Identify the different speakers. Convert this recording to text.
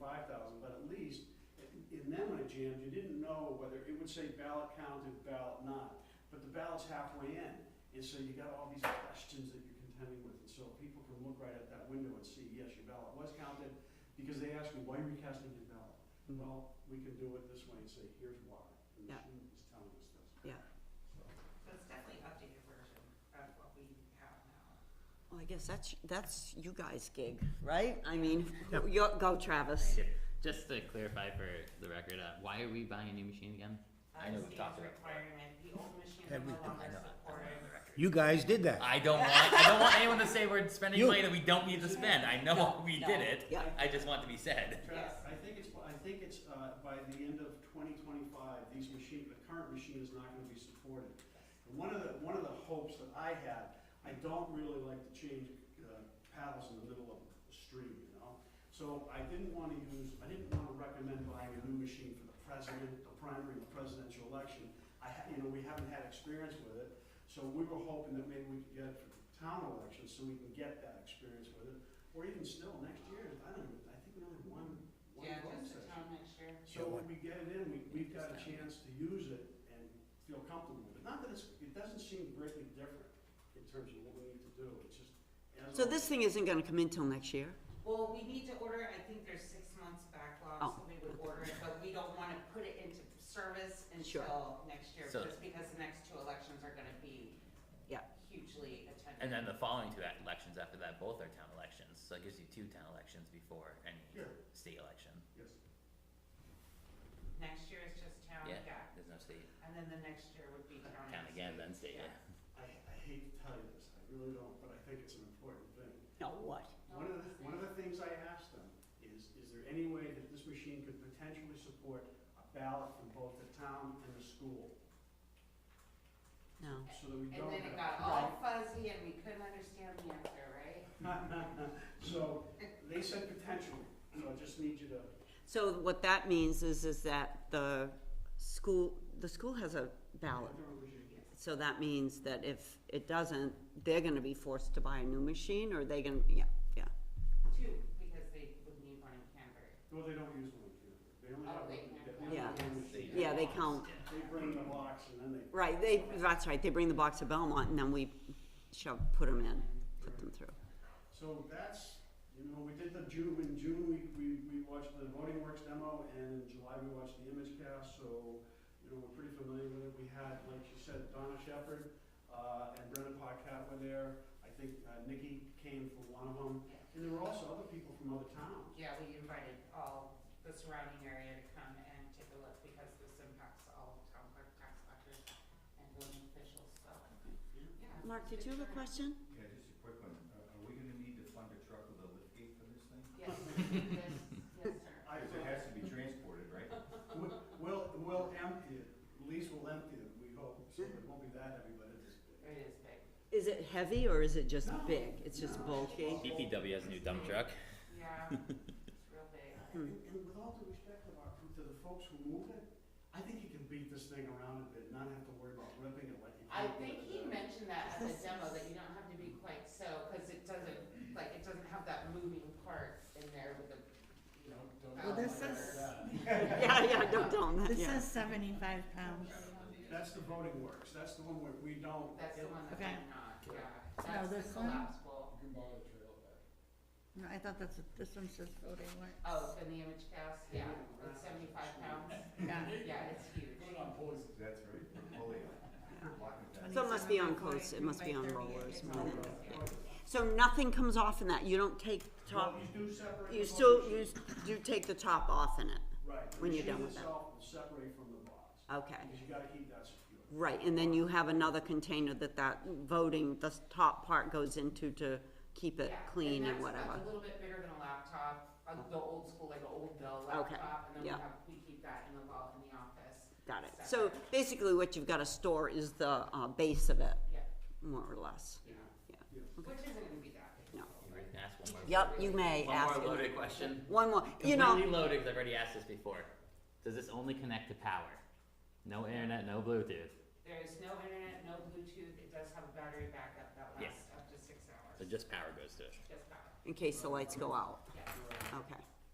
Speaker 1: five thousand, but at least, and then when it jammed, you didn't know whether, it would say ballot counted, ballot not, but the ballot's halfway in, and so you got all these questions that you're contending with, and so people can look right at that window and see, yes, your ballot was counted, because they asked me, why are you casting your ballot? Well, we can do it this way and say, here's why, and the
Speaker 2: Yeah.
Speaker 1: machine is telling us this.
Speaker 2: Yeah.
Speaker 1: So,
Speaker 3: So it's definitely updated version of what we have now.
Speaker 2: Well, I guess that's, that's you guys' gig, right? I mean, you, go Travis.
Speaker 4: Just to clarify for the record, uh, why are we buying a new machine again? I know
Speaker 3: Uh,
Speaker 4: we've talked
Speaker 3: standard
Speaker 4: about that.
Speaker 3: requirement, the old machine
Speaker 5: Have we-
Speaker 3: no
Speaker 5: I
Speaker 3: longer
Speaker 4: know, I know.
Speaker 3: supported.
Speaker 5: You guys did that.
Speaker 4: I don't want I don't want anyone to say we're spending
Speaker 5: You-
Speaker 4: money that we don't need to spend. I know
Speaker 2: No,
Speaker 4: we
Speaker 2: no,
Speaker 4: did it.
Speaker 2: yeah.
Speaker 4: I just want it to be said.
Speaker 1: Trav, I think it's, I think it's, uh, by the end of twenty twenty-five, these machine, the current machine is not gonna be supported. And one of the, one of the hopes that I had, I don't really like to change, uh, paddles in the middle of a stream, you know? So I didn't wanna use, I didn't wanna recommend buying a new machine for the president, the primary, the presidential election. I ha- you know, we haven't had experience with it, so we were hoping that maybe we could get it for the town elections, so we can get that experience with it. Or even still, next year, I don't know, I think we only have one, one
Speaker 3: Yeah,
Speaker 1: vote
Speaker 3: just the
Speaker 1: session.
Speaker 3: town next year.
Speaker 1: So when we get it in, we, we've got a chance to use it and feel comfortable with it. Not that it's, it doesn't seem greatly different in terms of what we need to do, it's just. as
Speaker 2: So
Speaker 1: a-
Speaker 2: this thing isn't gonna come in till next year?
Speaker 3: Well, we need to order, it. I think there's six months backlog,
Speaker 2: Oh,
Speaker 3: so we would order it, but we don't wanna put it into service
Speaker 2: Sure.
Speaker 3: until next year,
Speaker 4: So-
Speaker 3: just because the next two elections are gonna be
Speaker 2: Yeah.
Speaker 3: hugely attended.
Speaker 4: And then the following two elections after that both are town elections. So it gives you two town elections before any
Speaker 1: Yeah.
Speaker 4: state election.
Speaker 1: Yes.
Speaker 3: Next year is just town,
Speaker 4: Yeah.
Speaker 3: yeah,
Speaker 4: There's no state
Speaker 3: and then the next year would be town.
Speaker 4: town
Speaker 3: next
Speaker 4: again,
Speaker 3: year.
Speaker 4: then state.
Speaker 3: Yeah.
Speaker 1: I, I hate to tell you this, I really don't, but I think it's an important thing.
Speaker 2: No, what?
Speaker 1: One of the, one of the things I asked them is, is there any way that this machine could potentially support a ballot from both the town and the school?
Speaker 2: No.
Speaker 1: So that we
Speaker 3: And
Speaker 1: don't
Speaker 3: then it
Speaker 1: have.
Speaker 3: got all fuzzy and we couldn't understand the answer, right?
Speaker 1: So, they said potentially, so I just need you to,
Speaker 2: So what that means is, is that the school, the school has a ballot. So that means that if it doesn't, they're gonna be forced to buy a new machine, or they gonna, yeah, yeah.
Speaker 3: Two, because they would need one in Canterbury.
Speaker 1: well, they don't use one here, they only
Speaker 3: Oh,
Speaker 1: have,
Speaker 3: they
Speaker 1: they
Speaker 3: have
Speaker 1: only
Speaker 2: one.
Speaker 1: have one machine.
Speaker 2: Yeah, they count,
Speaker 1: They bring the box and then they,
Speaker 2: right, they, that's right, they bring the box to Belmont, and then we shall put them in, put them through.
Speaker 1: so that's, you know, we did the June, in June, we, we, we watched the Voting Works demo, and in July, we watched the image cast, so, you know, we're pretty familiar with it, we had, like you said, Donna Shepherd, uh, and Brennan Paquette were there, I think, uh, Nikki came for one of them,
Speaker 3: Yeah.
Speaker 1: and there were also other people from other towns.
Speaker 3: Yeah, we invited all the surrounding area to come and take a look because this impacts all town clerk, tax collectors, and building officials, so, yeah.
Speaker 2: Mark, did you have a question?
Speaker 6: Yeah, just a quick one. Are are we gonna need to fund a truck with a lift gate for this thing?
Speaker 3: Yes, yes, yes, sir.
Speaker 1: I-
Speaker 6: Because it has to be transported, right?
Speaker 1: We'll, we'll, we'll empty it, at least we'll empty it, we hope, so it won't be that heavy, but it is big.
Speaker 3: It is big.
Speaker 2: Is it heavy or is it just
Speaker 1: No,
Speaker 2: big? It's just
Speaker 1: no.
Speaker 2: bulky?
Speaker 4: DPW has a new dump truck.
Speaker 3: Yeah, it's real big.
Speaker 1: And, and with all due respect of our, to the folks who moved it, I think you can beat this thing around a bit, and not have to worry about ripping it like you
Speaker 3: I
Speaker 1: can
Speaker 3: think
Speaker 1: with
Speaker 3: he
Speaker 1: the-
Speaker 3: mentioned that at the demo, that you don't have to be quite so, cause it doesn't, like, it doesn't have that moving part in there with the, you know.
Speaker 7: Well, this
Speaker 3: valve
Speaker 7: is-
Speaker 3: or-
Speaker 2: Yeah, yeah, don't tell them that,
Speaker 7: This
Speaker 2: Uh, yeah.
Speaker 7: is seventy-five pounds.
Speaker 1: That's the voting works, that's the one where we don't.
Speaker 3: That's the one that's
Speaker 7: Okay.
Speaker 3: not, yeah,
Speaker 7: No,
Speaker 3: that's the
Speaker 7: this one?
Speaker 3: collapsible.
Speaker 7: No, I thought that's, what- this one says voting rights.
Speaker 3: Oh, then the image cast, yeah, it's seventy-five pounds,
Speaker 7: Yeah.
Speaker 3: yeah, it's huge.
Speaker 6: That's right, Fully. Lock it down.
Speaker 2: So it must be on coast, it must be on rollers more than, yeah. So nothing comes off in that, you don't take the
Speaker 1: Well,
Speaker 2: top,
Speaker 1: you do separate.
Speaker 2: you
Speaker 1: the
Speaker 2: still,
Speaker 1: voting
Speaker 2: you
Speaker 1: machine.
Speaker 2: do take the top off in it,
Speaker 1: Right. the
Speaker 2: when you're done
Speaker 1: machine
Speaker 2: with that.
Speaker 1: itself will Separate from the box,
Speaker 2: okay.
Speaker 1: because you gotta keep that secure.
Speaker 2: Right, and then you have another container that that voting, the top part goes into to keep it
Speaker 3: Yeah,
Speaker 2: clean and
Speaker 3: that's
Speaker 2: whatever.
Speaker 3: a little bit bigger than a laptop, uh, the old school, like an old Dell laptop, and then we
Speaker 2: yeah.
Speaker 3: have, we keep that in the vault in the office.
Speaker 2: Got it. So basically what you've gotta store is the, uh, base of it,
Speaker 3: Yeah,
Speaker 2: more or less.
Speaker 3: yeah,
Speaker 1: Yeah.
Speaker 3: which isn't gonna be that big.
Speaker 2: No.
Speaker 4: Ask one more.
Speaker 2: Yep, you may
Speaker 4: One
Speaker 2: ask.
Speaker 4: more
Speaker 2: it.
Speaker 4: loaded question.
Speaker 2: One more, you
Speaker 4: Completely
Speaker 2: know.
Speaker 4: loaded because I've already asked this before. Does this only connect to power? No internet, no Bluetooth.
Speaker 3: There is no internet, no Bluetooth, it does have a battery backup that
Speaker 4: Yeah.
Speaker 3: lasts up to six hours,
Speaker 4: So just power goes to it.
Speaker 3: just that,
Speaker 2: In case the lights go out,
Speaker 3: yeah.
Speaker 2: okay.